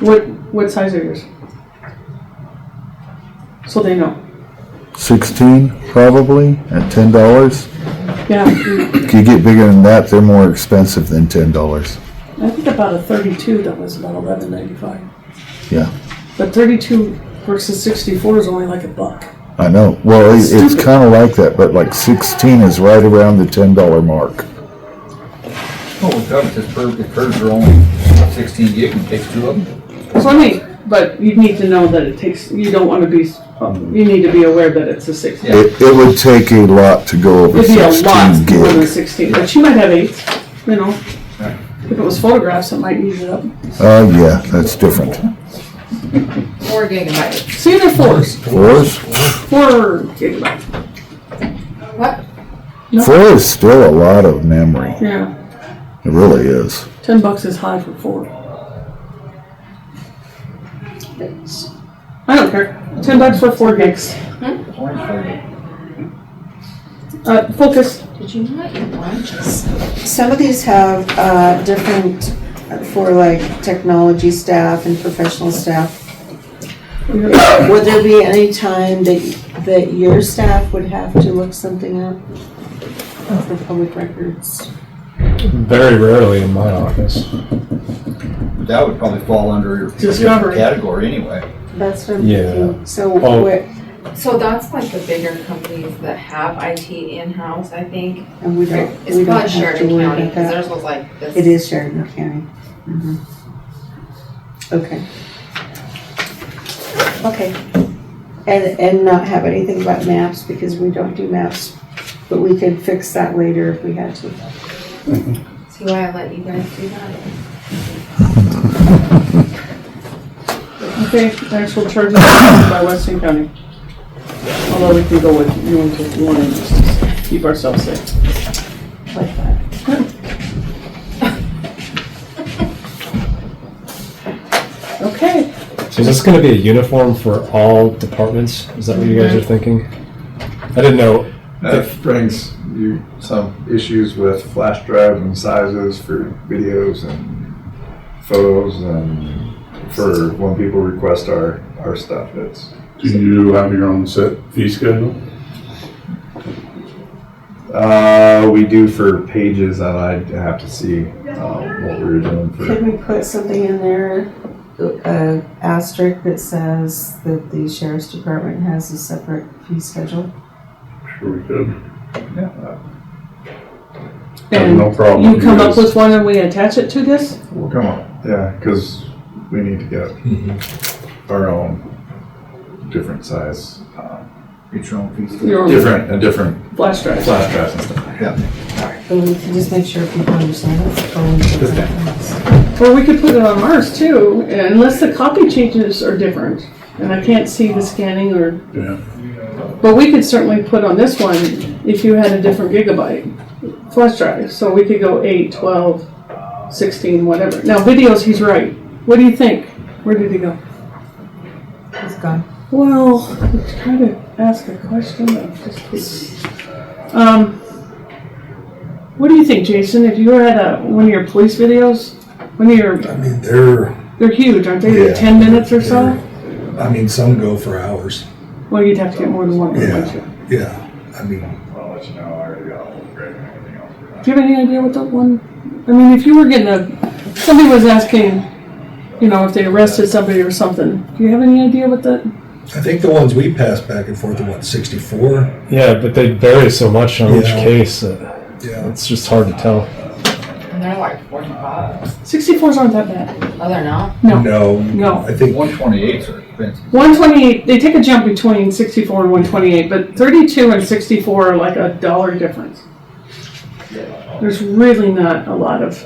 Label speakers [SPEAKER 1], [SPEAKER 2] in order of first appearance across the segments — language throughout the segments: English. [SPEAKER 1] What, what size are yours? So they know.
[SPEAKER 2] 16 probably at $10.
[SPEAKER 1] Yeah, mm,
[SPEAKER 2] If you get bigger than that, they're more expensive than $10.
[SPEAKER 1] I think about a thirty-two, that was about eleven ninety-five.
[SPEAKER 2] Yeah,
[SPEAKER 1] But thirty-two versus sixty-four is only like a buck.
[SPEAKER 2] I know. Well, it, it's
[SPEAKER 1] Stupid.
[SPEAKER 2] kind of like that, but like 16 is right around the $10 mark.
[SPEAKER 3] Oh, it does, this bird, the birds are only sixteen gig and takes two of them.
[SPEAKER 1] So I mean, but you need to know that it takes, you don't wanna be, you need to be aware that it's a six.
[SPEAKER 3] Yeah.
[SPEAKER 2] It, it would take a lot to go over
[SPEAKER 1] It'd be a
[SPEAKER 2] 16
[SPEAKER 1] lot more than
[SPEAKER 2] gig.
[SPEAKER 1] sixteen, but she might have eight, you know.
[SPEAKER 3] Right.
[SPEAKER 1] If it was photographs, it might use it up.
[SPEAKER 2] Oh, yeah, that's different.
[SPEAKER 4] Four gigabytes.
[SPEAKER 1] See, they're fours,
[SPEAKER 2] Fours?
[SPEAKER 1] four gigabyte,
[SPEAKER 4] What?
[SPEAKER 2] Four is still a lot of memory. It
[SPEAKER 1] yeah.
[SPEAKER 2] really is.
[SPEAKER 1] Ten bucks is high for four. I don't care. Ten bucks for four gigs.
[SPEAKER 3] It's only four gig.
[SPEAKER 1] Uh, focus.
[SPEAKER 4] Did you not eat lunches?
[SPEAKER 5] Some of these have uh, different, uh, for like technology staff and professional staff. Would there be any time that, that your staff would have to look something up for public records?
[SPEAKER 6] Very rarely in my office.
[SPEAKER 3] That would probably fall under a different
[SPEAKER 1] Discovery.
[SPEAKER 3] category anyway.
[SPEAKER 5] That's what I'm
[SPEAKER 6] Yeah.
[SPEAKER 5] thinking. So
[SPEAKER 6] Oh.
[SPEAKER 5] what,
[SPEAKER 4] So that's like the bigger companies that have IT in-house, I think.
[SPEAKER 5] and we don't,
[SPEAKER 4] It's probably
[SPEAKER 5] we don't have to
[SPEAKER 4] Sheridan
[SPEAKER 5] worry
[SPEAKER 4] County,
[SPEAKER 5] about
[SPEAKER 4] because
[SPEAKER 5] that.
[SPEAKER 4] theirs was like this.
[SPEAKER 5] It is Sheridan County. Mhm. Okay. Okay. And, and not have anything about maps because we don't do maps, but we could fix that later if we had to.
[SPEAKER 4] See why I let you guys do that?
[SPEAKER 1] Okay, actual charges by Weston County. Although we can go with, you want to, you want to just keep ourselves safe.
[SPEAKER 5] like that.
[SPEAKER 1] Okay.
[SPEAKER 6] So is this going to be a uniform for all departments? Is that what you guys are thinking? I didn't know.
[SPEAKER 3] Uh,
[SPEAKER 7] That brings you some issues with flash drives and sizes for videos and photos and for when people request our, our stuff, it's,
[SPEAKER 8] Do you have your own set fee schedule?
[SPEAKER 7] uh, we do for pages and I'd have to see, um, what we were doing for.
[SPEAKER 5] Could we put something in there, uh, asterisk that says that the sheriff's department has a separate fee schedule?
[SPEAKER 8] Sure we could.
[SPEAKER 7] yeah,
[SPEAKER 1] And
[SPEAKER 8] No problem.
[SPEAKER 1] you come up with one and we attach it to this?
[SPEAKER 7] We'll come on, yeah, cause we need to get
[SPEAKER 9] Mm-hmm.
[SPEAKER 7] our own different size, uh,
[SPEAKER 3] Get your own piece.
[SPEAKER 1] Your own
[SPEAKER 7] different, a different
[SPEAKER 1] flash drive.
[SPEAKER 7] flash drives and stuff.
[SPEAKER 5] But we can just make sure people understand what's going on.
[SPEAKER 1] Or we could put it on ours too, unless the copy changes are different. And I can't see the scanning or,
[SPEAKER 8] Yeah.
[SPEAKER 1] but we could certainly put on this one if you had a different gigabyte flash drive. So we could go eight, twelve, sixteen, whatever. Now videos, he's right. What do you think? Where did he go?
[SPEAKER 5] It's gone.
[SPEAKER 1] Well, I was trying to ask a question. but I just couldn't. Um, what do you think, Jason? If you were at a, one of your police videos, one of your,
[SPEAKER 9] I mean, they're,
[SPEAKER 1] they're huge, aren't they?
[SPEAKER 9] Yeah.
[SPEAKER 1] Ten minutes or so?
[SPEAKER 9] I mean, some go for hours.
[SPEAKER 1] Well, you'd have to get more than one.
[SPEAKER 9] Yeah.
[SPEAKER 1] wouldn't you?
[SPEAKER 9] Yeah, I mean,
[SPEAKER 7] I'll let you know, I already got all the grading and everything else.
[SPEAKER 1] Do you have any idea what that one? I mean, if you were getting a, somebody was asking, you know, if they arrested somebody or something. Do you have any idea what that?
[SPEAKER 9] I think the ones we passed back and forth are what, 64?
[SPEAKER 6] Yeah, but they vary so much on each
[SPEAKER 9] Yeah.
[SPEAKER 6] case that
[SPEAKER 9] Yeah.
[SPEAKER 6] it's just hard to tell.
[SPEAKER 4] And they're like forty bucks.
[SPEAKER 1] Sixty-fours aren't that bad.
[SPEAKER 4] Oh, they're not?
[SPEAKER 9] No,
[SPEAKER 1] No.
[SPEAKER 9] I think,
[SPEAKER 3] One twenty-eights are expensive.
[SPEAKER 1] 128 they take a jump between 64 and 128 but 32 and 64 are like a dollar difference there's really not a lot of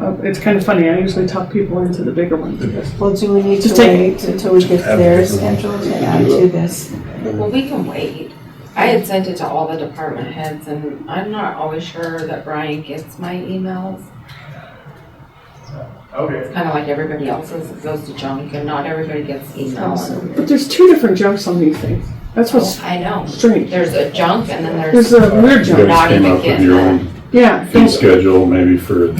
[SPEAKER 1] uh, it's kind of funny i usually talk people into the bigger one
[SPEAKER 5] Well, do we need to
[SPEAKER 1] Just take-
[SPEAKER 5] wait until we get
[SPEAKER 9] Have
[SPEAKER 5] their
[SPEAKER 9] everyone.
[SPEAKER 5] schedule to add to this?
[SPEAKER 4] Well, we can wait. I had sent it to all the department heads and I'm not always sure that Brian gets my emails. Okay. It's kind of like everybody else's, it goes to junk and not everybody gets emails.
[SPEAKER 1] but there's two different jumps on these things that's what's
[SPEAKER 4] I know.
[SPEAKER 1] strange
[SPEAKER 4] There's a junk and then
[SPEAKER 1] there's a
[SPEAKER 4] there's,
[SPEAKER 1] weird
[SPEAKER 8] You
[SPEAKER 1] jump
[SPEAKER 4] Not
[SPEAKER 8] guys came
[SPEAKER 4] even
[SPEAKER 8] up with
[SPEAKER 4] getting
[SPEAKER 8] your
[SPEAKER 4] that.
[SPEAKER 8] own
[SPEAKER 1] yeah
[SPEAKER 8] fee schedule maybe for the